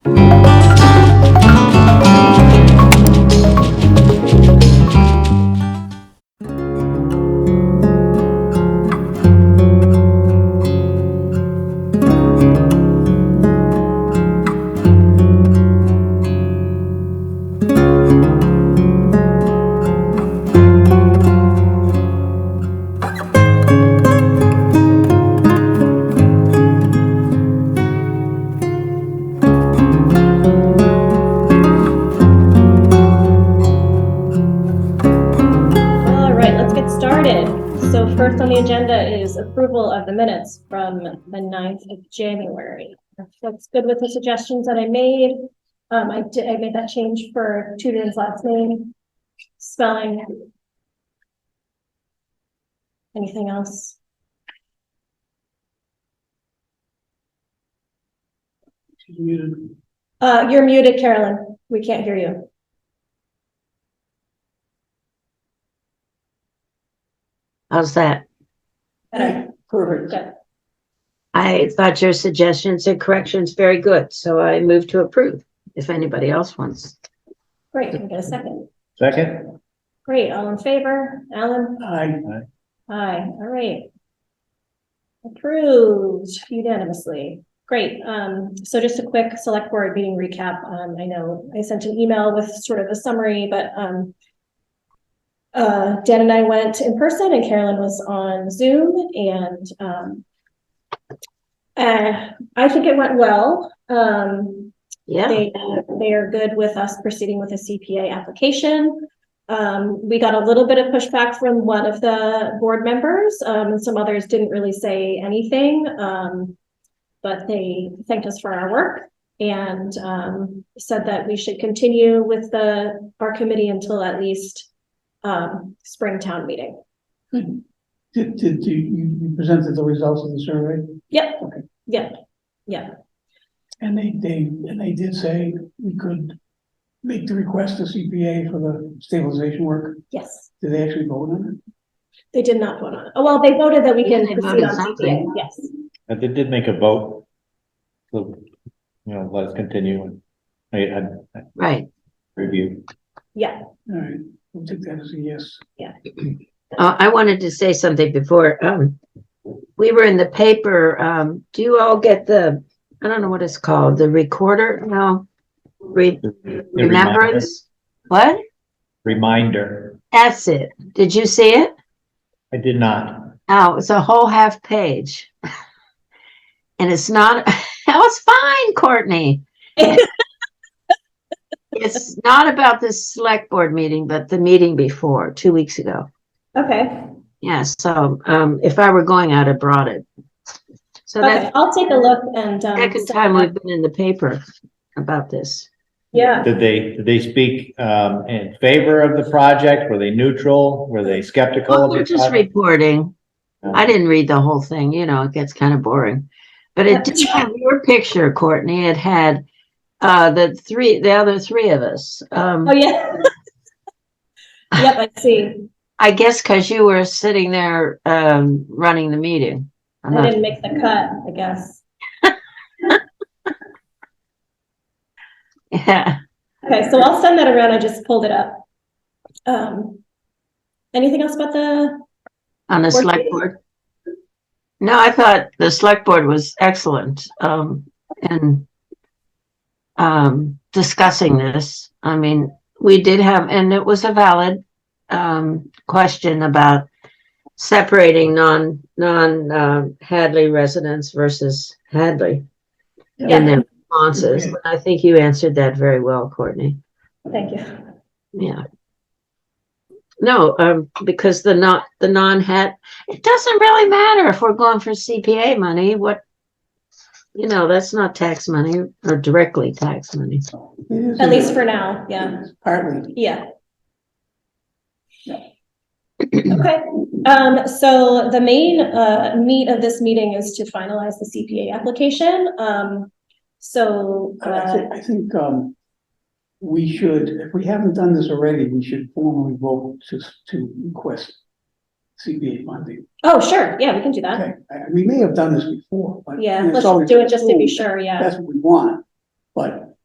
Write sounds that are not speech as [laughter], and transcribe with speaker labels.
Speaker 1: agenda is approval of the minutes from the 9th of January. If That's good with the suggestions that I made. Um, I did, I made that change for Tudor's last name, spelling. Anything else?
Speaker 2: She's muted.
Speaker 1: Uh, you're muted, Carolyn. We can't hear you.
Speaker 3: How's that?
Speaker 1: Better.
Speaker 2: Perfect.
Speaker 1: Good.
Speaker 3: I thought your suggestions and corrections very good, so I move to approve if anybody else wants.
Speaker 1: Great. Can we get a second?
Speaker 4: Second?
Speaker 1: Great. All in favor? Alan?
Speaker 2: I,
Speaker 1: Aye, all right. Approved unanimously. Great. Um, so just a quick select board meeting recap. Um, I know I sent an email with sort of a summary, but, um, uh, Dan and I went in person and Carolyn was on Zoom and, um, uh, I think it went well. Um,
Speaker 3: Yeah,
Speaker 1: they, they are good with us proceeding with a CPA application. Um, we got a little bit of pushback from one of the board members, um, and some others didn't really say anything. Um, but they thanked us for our work and, um, said that we should continue with the, our committee until at least, um, spring town meeting.
Speaker 2: did, did, you, you you presented the results of the survey?
Speaker 1: Yep,
Speaker 2: Okay.
Speaker 1: yep, yep.
Speaker 2: And they, they, and they did say we could make the request to CPA for the stabilization work.
Speaker 1: Yes,
Speaker 2: Did they actually vote on it?
Speaker 1: they did not vote on it. Oh, well, they voted that we can
Speaker 3: They
Speaker 1: proceed
Speaker 3: voted
Speaker 1: on CPA,
Speaker 3: something.
Speaker 1: yes.
Speaker 4: Uh, They did make a vote. So, you know, let's continue and I, I I
Speaker 3: right.
Speaker 4: review.
Speaker 2: All right, we'll take that as a yes.
Speaker 3: Uh, I wanted to say something before, um, we were in the paper, um, do you all get the, I don't know what it's called, the recorder? No, re-
Speaker 4: The reminder-
Speaker 3: remembrance? What?
Speaker 4: Reminder.
Speaker 3: That's it. Did you see it?
Speaker 4: I did not.
Speaker 3: Oh, it's a whole half page. And it's not, [laughs] that was fine, Courtney. It's not about this select board meeting, but the meeting before, two weeks ago.
Speaker 1: Okay.
Speaker 3: Yeah, so, um, if I were going, I'd have brought it. So
Speaker 1: Okay,
Speaker 3: that's
Speaker 1: I'll take a look and, um.
Speaker 3: the second
Speaker 1: send
Speaker 3: time
Speaker 1: that.
Speaker 3: we've been in the paper about this.
Speaker 1: Yeah,
Speaker 4: Did they, did they speak, um, in favor of the project? Were they neutral? Were they skeptical?
Speaker 3: Well,
Speaker 4: of
Speaker 3: Oh, we're
Speaker 4: the
Speaker 3: just
Speaker 4: project?
Speaker 3: reporting. I
Speaker 4: Um,
Speaker 3: didn't read the whole thing, you know, it gets kind of boring. But it did have your picture, Courtney. It had uh the three, the other three of us. Um,
Speaker 1: oh,
Speaker 3: [laughs]
Speaker 1: yeah. Yep, I see.
Speaker 3: I guess because you were sitting there um running the meeting. I'm
Speaker 1: I
Speaker 3: not,
Speaker 1: didn't make the cut, I guess.
Speaker 3: [laughs] yeah.
Speaker 1: Okay, so I'll send that around. I just pulled it up. Um, anything else about the,
Speaker 3: On the
Speaker 1: Board
Speaker 3: select
Speaker 1: meeting?
Speaker 3: board? No, I thought the select board was excellent, um, in um, discussing this. I mean, we did have, and it was a valid, um, question about separating non, non, um, Hadley residents versus Hadley in their responses. And I think you answered that very well, Courtney.
Speaker 1: thank you.
Speaker 3: Yeah. No, um, because the not, the non-hat, it doesn't really matter if we're going for CPA money, what, you know, that's not tax money or directly tax money.
Speaker 2: It is a-
Speaker 1: At least for now, yeah,
Speaker 2: Partly.
Speaker 1: yeah. Okay, um, so the main, uh, meat of this meeting is to finalize the CPA application. Um, so,
Speaker 2: I
Speaker 1: uh,
Speaker 2: think, I think, um, we should, if we haven't done this already, we should formally vote to, to request CPA funding.
Speaker 1: oh, sure, yeah, we can do that.
Speaker 2: Okay, I- we may have done this before, but.
Speaker 1: Yeah,
Speaker 2: it's
Speaker 1: let's
Speaker 2: always-
Speaker 1: do it just to be sure, yeah.
Speaker 2: That's what we want, but